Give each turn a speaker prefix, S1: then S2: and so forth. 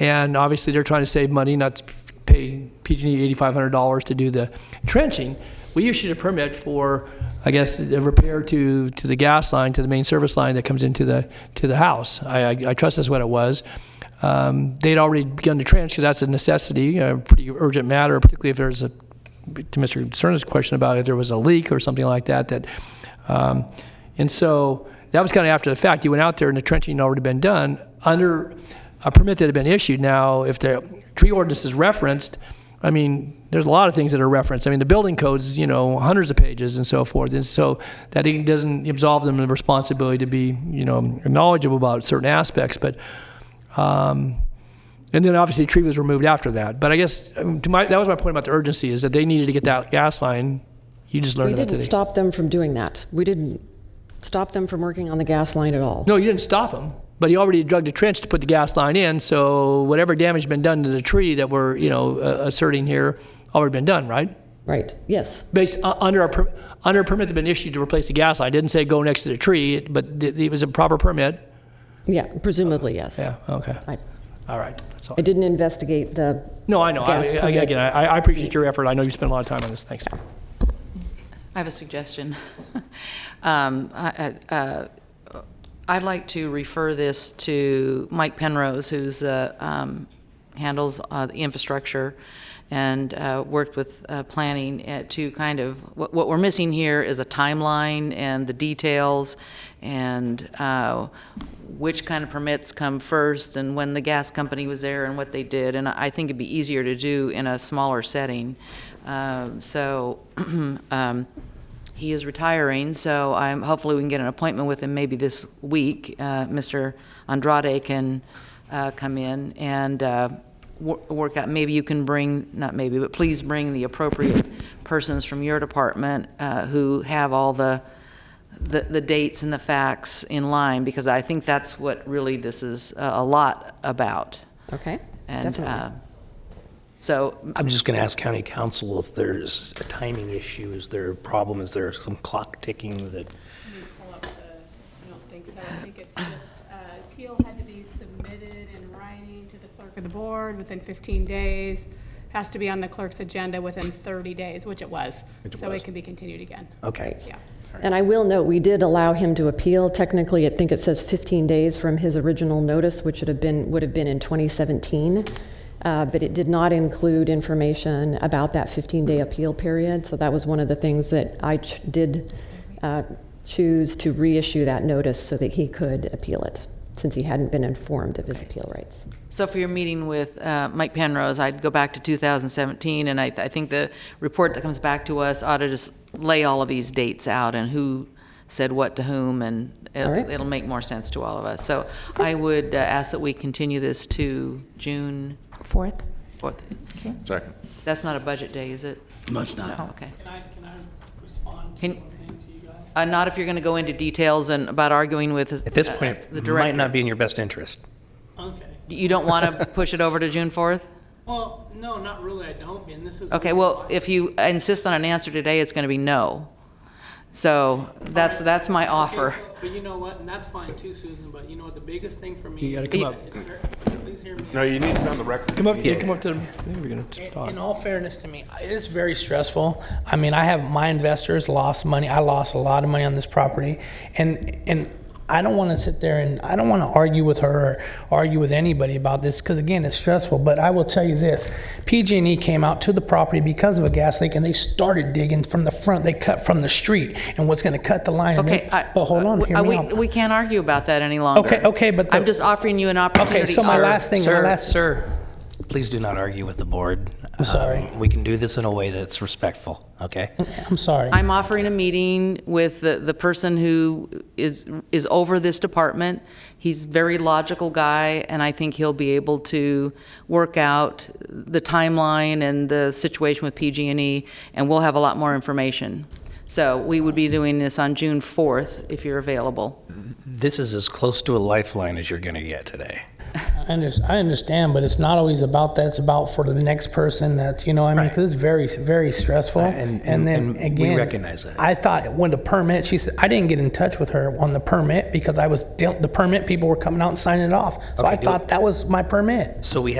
S1: And obviously, they're trying to save money, not to pay PG&E $8,500 to do the trenching. We issued a permit for, I guess, a repair to, to the gas line, to the main service line that comes into the, to the house. I, I I trust that's what it was. Um, They'd already begun to trench, because that's a necessity, a pretty urgent matter, particularly if there's a, to Mr. Cerna's question about if there was a leak or something like that, that, um, and so that was kind of after the fact. You went out there and the trenching had already been done under a permit that had been issued. Now, if the tree ordinance is referenced, I mean, there's a lot of things that are referenced. I mean, the building codes, you know, hundreds of pages and so forth. And so that even doesn't absolve them of the responsibility to be, you know, knowledgeable about certain aspects. But Um, and then obviously the tree was removed after that. But I guess um, to my, that was my point about the urgency is that they needed to get that gas line. You just learned
S2: We
S1: that
S2: didn't
S1: today.
S2: stop them from doing that. We didn't stop them from working on the gas line at all.
S1: No, you didn't stop him, but he already dug the trench to put the gas line in. So whatever damage been done to the tree that we're you know uh, asserting here already been done, right?
S2: Right, yes.
S1: Based uh, under a per, under a permit that been issued to replace the gas line. Didn't say go next to the tree, but th- it was a proper permit.
S2: Yeah, presumably, yes.
S1: Yeah. Okay.
S2: I
S1: All right. That's all.
S2: I didn't investigate the,
S1: No, I know. I, I,
S2: Gas permit.
S1: again, I, I appreciate your effort. I know you spent a lot of time on this. Thanks.
S3: I have a suggestion. Um, I- I- uh, I'd like to refer this to Mike Penrose, who's, uh, um, handles uh, the infrastructure and uh, worked with uh, planning uh, to kind of, what what we're missing here is a timeline and the details and uh, which kind of permits come first and when the gas company was there and what they did. And I think it'd be easier to do in a smaller setting. Um, So um, he is retiring, so I'm, hopefully we can get an appointment with him maybe this week. Uh, Mr. Andrade can uh, come in and uh, wor- work out, maybe you can bring, not maybe, but please bring the appropriate persons from your department uh, who have all the, the the dates and the facts in line, because I think that's what really this is uh, a lot about.
S2: okay,
S3: And
S2: definitely.
S3: uh, so,
S4: I'm just going to ask county council if there's a timing issue, is there a problem, is there some clock ticking that,
S5: Can you pull up the, I don't think so, I think it's just, uh, appeal had to be submitted in writing to the clerk of the board within 15 days, has to be on the clerk's agenda within 30 days, which it was. Uh, So it can be continued again.
S4: okay.
S2: Right.
S5: Yeah.
S2: And I will note, we did allow him to appeal. Technically, I think it says 15 days from his original notice, which would have been, would have been in 2017. Uh, But it did not include information about that 15-day appeal period. So that was one of the things that I ch- did uh, choose to reissue that notice so that he could appeal it, since he hadn't been informed of his appeal rights.
S3: So for your meeting with uh, Mike Penrose, I'd go back to 2017, and I, I think the report that comes back to us ought to just lay all of these dates out and who said what to whom, and it'll,
S2: All right.
S3: it'll make more sense to all of us. So I would uh, ask that we continue this to June
S6: Fourth?
S3: 4th.
S6: Okay.
S7: Second.
S3: That's not a budget day, is it?
S8: No, it's not.
S3: Okay.
S9: Can I, can I respond to
S3: Can-
S9: one thing to you guys?
S3: Uh, Not if you're going to go into details and about arguing with.
S4: At this point,
S3: Uh, The
S4: it might
S3: director.
S4: not be in your best interest.
S9: Okay.
S3: You don't want to push it over to June 4th?
S9: Well, no, not really, I don't, and this is.
S3: Okay, well, if you insist on an answer today, it's going to be no. So that's, that's my offer.
S9: Okay, so- But you know what, and that's fine too, Susan, but you know what, the biggest thing for me.
S1: You gotta come up.
S9: It's very- Please hear me out.
S7: No, you need to be on the record.
S1: Come up. Yeah. Come up to. I think we're gonna talk.
S9: In all fairness to me, it is very stressful. I mean, I have my investors lost money. I lost a lot of money on this property, and and I don't want to sit there and I don't want to argue with her or argue with anybody about this because again, it's stressful. But I will tell you this: PG&E E came out to the property because of a gas leak, and they started digging from the front. They cut from the street, and what's going to cut the line? and
S3: Okay.
S9: then-
S3: I-
S9: but hold on, hear
S3: I-
S9: me
S3: we-
S9: out.
S3: We can't argue about that any longer.
S9: Okay, okay, but
S3: I'm
S9: the-
S3: just offering you an opportunity.
S9: so my
S3: sir.
S9: last thing, my
S4: Sir,
S9: last-
S4: Sir, please do not argue with the board. I'm
S9: sorry.
S4: We can do this in a way that's respectful, okay?
S9: I'm sorry.
S3: I'm offering a meeting with the, the person who is, is over this department. He's a very logical guy, and I think he'll be able to work out E, the timeline and the situation with PG&E, and we'll have a lot more information. So we would be doing this on June 4th, if you're available.
S4: This is as close to a lifeline as you're going to get today.
S9: I, under, I understand, but it's not always about that. It's about for the next person that's, you know, what I mean, 'cause it's very, very stressful.
S4: Right, and-
S9: and,
S4: and-
S9: then
S4: and we
S9: again,
S4: recognize that.
S9: I thought when the permit, she said, I didn't get in touch with her on the permit because I was, dealt- the permit people were coming out and signing it off. So I
S4: do it.
S9: thought that was my permit.
S4: So we have